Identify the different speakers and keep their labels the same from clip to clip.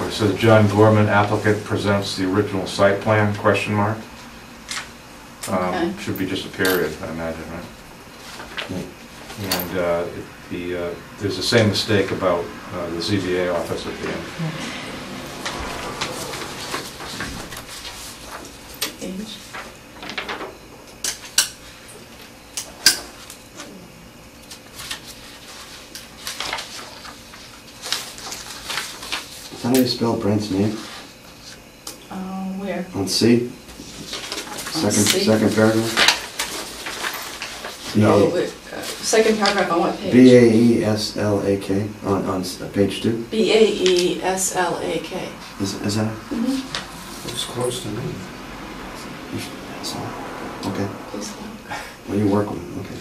Speaker 1: it says John Gorman applicant presents the original site plan, question mark.
Speaker 2: Okay.
Speaker 1: Um, Should be just a period, I imagine, right? And uh, it- the, uh, there's the same mistake about uh, the ZBA office at the end.
Speaker 2: Page.
Speaker 3: How do you spell Brent's name?
Speaker 2: Uh, where?
Speaker 3: On C? Second,
Speaker 2: C?
Speaker 3: second paragraph?
Speaker 2: Oh, wait, uh, Second paragraph on what page?
Speaker 3: B A E S L A K, on, on s- page two?
Speaker 2: B A E S L A K.
Speaker 3: Is, is that?
Speaker 2: Mhm.
Speaker 3: Mm-hmm.
Speaker 4: It's close to me.
Speaker 3: that's all. Okay,
Speaker 2: Please allow.
Speaker 3: well, you work with, him, okay.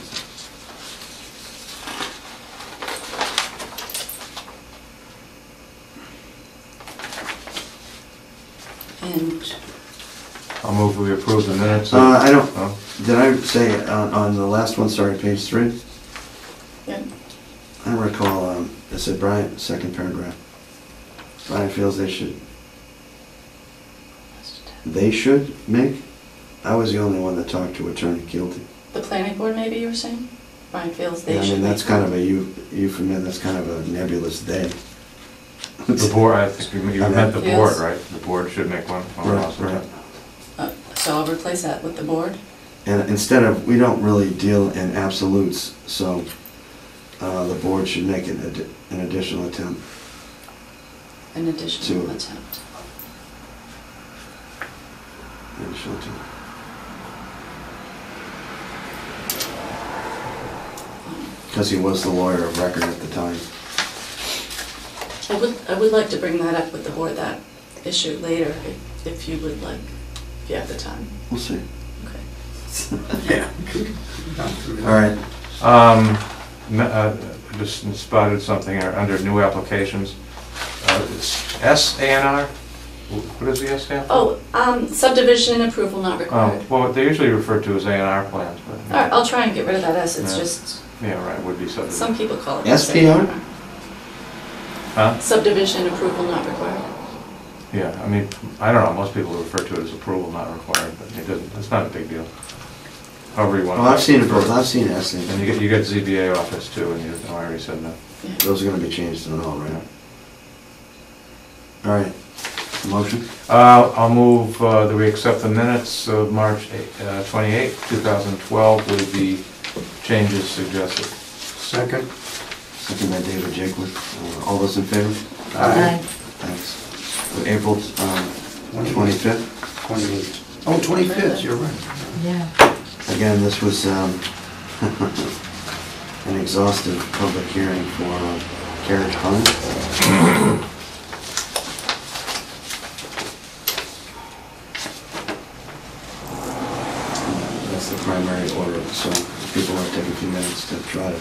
Speaker 2: And
Speaker 1: I'll move we approve the minutes.
Speaker 3: Uh, I don't-
Speaker 1: Oh,
Speaker 3: Did I say on, on the last one, sorry, page three?
Speaker 2: Yeah.
Speaker 3: I recall, um, it said Brian, second paragraph. Brian feels they should, they should make? I was the only one that talked to attorney guilty.
Speaker 2: the planning board, maybe you were saying? Brian feels they
Speaker 3: Yeah, I
Speaker 2: should.
Speaker 3: mean, that's
Speaker 2: make-
Speaker 3: kind of a eu- euphemism, that's kind of a nebulous day.
Speaker 1: The board, I think you you meant the board,
Speaker 2: Yes.
Speaker 1: right? The board should make one. I'll
Speaker 3: Right,
Speaker 1: also-
Speaker 3: right.
Speaker 2: Uh, So I'll replace that with the board?
Speaker 3: And instead of, we don't really deal in absolutes, so uh, the board should make an addi- an additional attempt.
Speaker 2: An additional
Speaker 3: Two.
Speaker 2: attempt.
Speaker 3: Additional attempt. Because he was the lawyer of record at the time.
Speaker 2: I would, I would like to bring that up with the board, that issue later, if- if you would like, if you have the time.
Speaker 3: We'll see.
Speaker 2: Okay.
Speaker 3: All right.
Speaker 1: Um, n- uh, Just spotted something here under new applications. Uh, it's S A N R? What does the S stand for?
Speaker 2: Oh, um, subdivision and approval not
Speaker 1: Oh,
Speaker 2: required.
Speaker 1: Well, they're usually referred to as A and R plans,
Speaker 2: All right,
Speaker 1: but,
Speaker 2: I'll try and get rid of that S, it's
Speaker 1: Yeah.
Speaker 2: just,
Speaker 1: yeah, right, would be
Speaker 2: some
Speaker 1: subdivision.
Speaker 2: people call it.
Speaker 3: SPR?
Speaker 1: Huh?
Speaker 2: Subdivision and approval not required.
Speaker 1: Yeah, I mean, I don't know, most people refer to it as approval not required, but it doesn't, it's not a big deal. However you want.
Speaker 3: Well,
Speaker 1: to
Speaker 3: I've seen it
Speaker 1: refer
Speaker 3: both, I've seen it, I've seen
Speaker 1: And you
Speaker 3: it.
Speaker 1: get, you get ZBA office too, and you, no, I already said that.
Speaker 2: Yeah.
Speaker 3: Those are gonna be changed and all, right? All right. Motion?
Speaker 1: Uh, I'll move uh, that we accept the minutes of March eight- uh, 28, 2012 with the changes suggested.
Speaker 4: Second?
Speaker 3: Second by David Jacob. Uh, All those in favor?
Speaker 4: Aye.
Speaker 3: Thanks. April um, 25th.
Speaker 4: Twenty-eight. Oh, twenty-fifth, you're right.
Speaker 5: Yeah.
Speaker 3: Again, this was um, an exhaustive public hearing for uh, carriage pond. That's the primary order, so if people want to take a few minutes to try to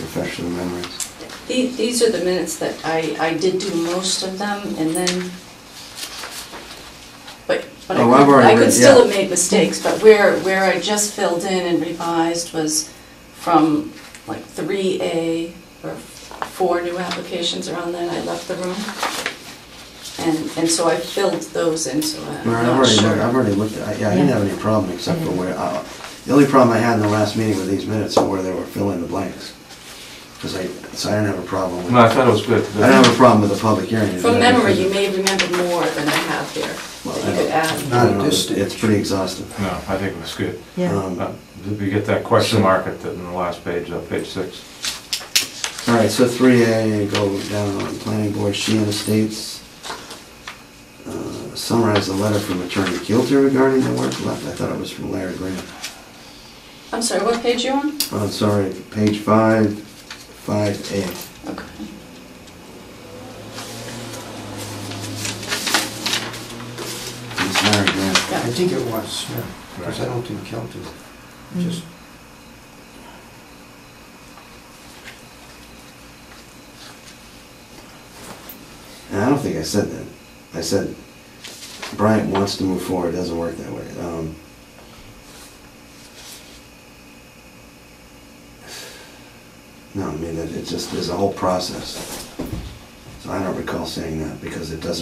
Speaker 3: refresh their memories.
Speaker 2: The- These are the minutes that I, I did do most of them, and then, but, but I
Speaker 3: Oh, I've
Speaker 2: could,
Speaker 3: already
Speaker 2: I could
Speaker 3: read-
Speaker 2: still
Speaker 3: yeah.
Speaker 2: have made mistakes, but where, where I just filled in and revised was from like three A, or four new applications around then, I left the room. And, and so I filled those in, so I'm
Speaker 3: Well, I've
Speaker 2: not
Speaker 3: already, looked-
Speaker 2: sure.
Speaker 3: I've already looked, at- yeah, I didn't have any problem except for where, uh, the only problem I had in the last meeting with these minutes are where they were fill in the blanks. Because I, so I didn't have a problem with,
Speaker 1: No, I
Speaker 3: I
Speaker 1: thought it was good.
Speaker 3: don't have a problem with the public hearing.
Speaker 2: From memory, you may remember more than I have here,
Speaker 3: Well,
Speaker 2: that
Speaker 3: I
Speaker 2: you could
Speaker 3: don't-
Speaker 2: add.
Speaker 3: I don't know,
Speaker 4: Not
Speaker 3: It's pretty exhaustive.
Speaker 1: No, I think it was good.
Speaker 5: Yeah.
Speaker 3: Um,
Speaker 1: Uh, Did we get that question mark at the, in the last page, uh, page six?
Speaker 3: All right, so three A, go down on planning board, Sheehan Estates. Uh, Summarize the letter from Attorney Gilter regarding the work left, I thought it was from Larry Graham.
Speaker 2: I'm sorry, what page you on?
Speaker 3: Oh, I'm sorry, page five, five A.
Speaker 2: Okay.
Speaker 3: It's Larry Graham.
Speaker 2: Yeah.
Speaker 4: I think it was, yeah, because I don't think Kelton, just,
Speaker 3: And I don't think I said that. I said Bryant wants to move forward. It doesn't work that way. Um, no, I mean it, it just there's a whole process. It's I don't recall saying that because it doesn't